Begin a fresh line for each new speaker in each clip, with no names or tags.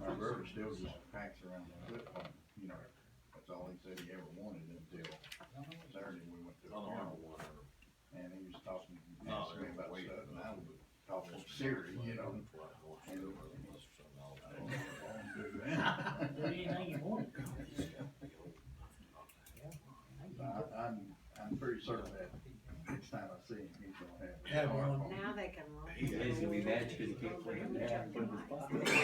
My brother still just packs around the foot pump, you know, that's all he said he ever wanted until Saturday we went to
I
a
don't have
funeral.
one.
And he was talking,
No,
asking me
they're
about
way
stuff, and I
up.
was talking serious, you know. I don't know
know.
what I'm gonna do now.
Do anything you want.
I- I'm, I'm pretty certain that next time I see him, he's gonna have. a
Have one.
smartphone.
Now they can. roll.
He's gonna be mad because he can't put it down, put it in his
I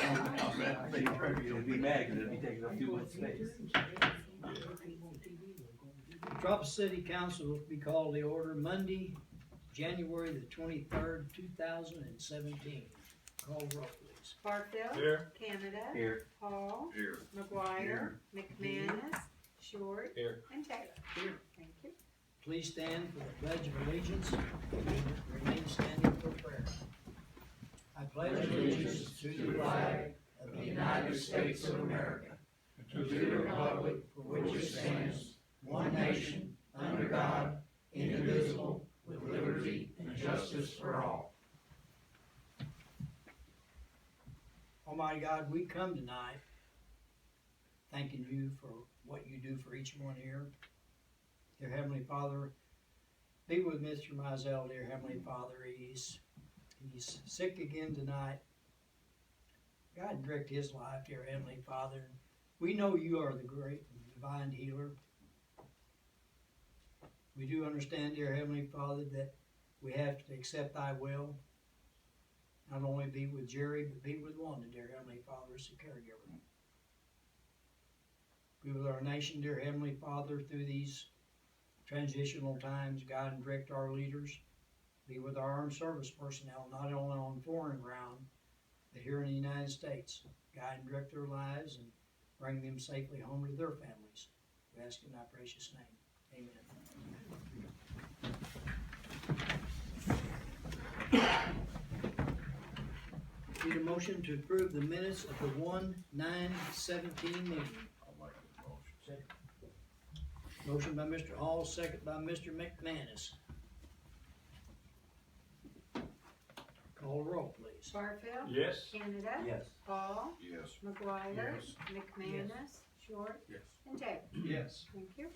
bet they
pocket.
probably-
He'll be mad because it'll be taking up too much space.
Metropolis City Council will be called to order Monday, January the twenty-third, two thousand and seventeen. Call roll, please.
Barfield.
Here.
Canada.
Here,
Paul.
Here.
McGuire. McManus. Short.
Here.
And Taylor.
Here.
Thank you.
Please stand for the Pledge of Allegiance. Remain standing for prayer. I pledge allegiance to the flag of the United States of America,
to the republic for which it stands, one nation, under God, indivisible, with liberty and justice for all.
Almighty Oh, God, we come tonight thanking you for what you do for each one here. Dear Heavenly Father, be with Mr. Mizell, dear Heavenly Father. He's, he's sick again tonight. God direct his life, dear Heavenly Father. We know you are the great and divine healer. We do understand, dear Heavenly Father, that we have to accept thy will not only be with Jerry, but be with Wanda, dear Heavenly Father, as a caregiver. Be with our nation, dear Heavenly Father, through these transitional times, guide and direct our leaders. Be with our armed service personnel, not only on foreign ground, but here in the United States. Guide and direct their lives and bring them safely home to their families. We ask in thy precious name. Amen. Need a motion to approve the minutes of the one nine seventeen meeting.
I'll make the motion.
Motion by Mr. Hall, second by Mr. McManus. Call roll, please.
Barfield.
Yes.
Canada.
yes.
Paul.
Yes.
McGuire.
Yes.
McManus. Short.
Yes.
And Taylor.
Yes.
Thank you.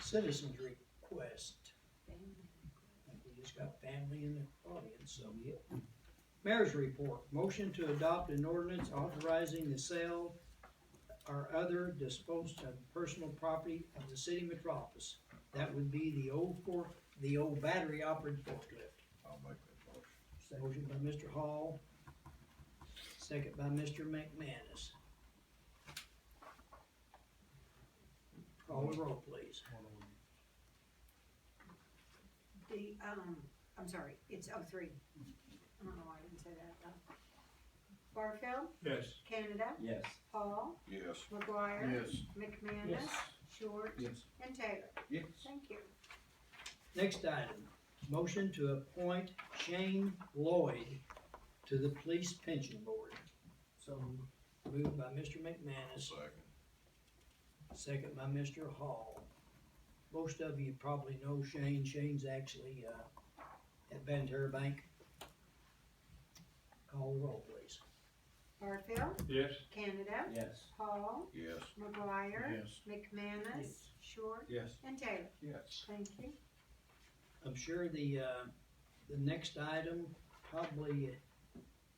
Citizens request. I think We just got family in the audience, so yeah. Mayor's report, motion to adopt an ordinance authorizing the sale or other disposed of personal property of the city metropolis. That would be the old fork, the old battery operated forklift.
I'll make that motion.
Motion by Mr. Hall, second by Mr. McManus. Call the roll, please.
The, um, I'm sorry, it's oh three. I don't know why I didn't say that. uh, Barfield.
Yes.
Canada.
Yes.
Paul.
Yes.
McGuire.
Yes,
McManus. Short.
Yes.
And Taylor.
Yes.
Thank you.
Next item, motion to appoint Shane Lloyd to the Police Pension Board. So moved by Mr. McManus,
Second.
second by Mr. Hall. Most of you probably know Shane. Shane's actually, uh, at Ventura Bank. Call the roll, please.
Barfield.
Yes.
Canada.
Yes.
Paul.
Yes.
McGuire.
Yes.
McManus.
Yes.
Short.
Yes.
And Taylor.
Yes.
Thank you.
I'm sure the, uh, the next item probably,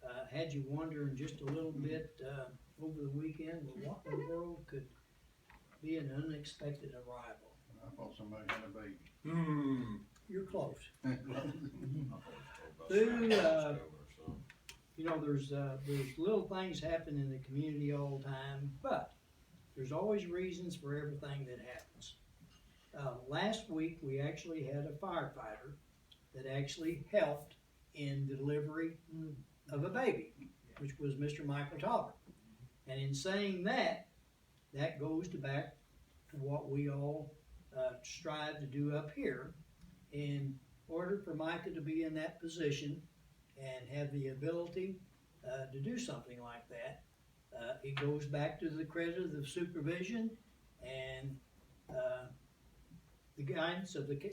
uh, had you wondering just a little bit, uh, over the weekend, well, what in the world could be an unexpected arrival?
I thought somebody had a baby.
Hmm.
You're close.
I thought it was
Who,
about Saturday
uh,
or something.
You know, there's, uh, there's little things happen in the community all the time, but there's always reasons for everything that happens. Uh, last week, we actually had a firefighter that actually helped in the delivery of a baby, which was Mr. Michael Tolliver. And in saying that, that goes to back to what we all uh, strive to do up here. In order for Micah to be in that position and have the ability uh, to do something like that, uh, it goes back to the credit of the supervision and uh, the guidance of the ca-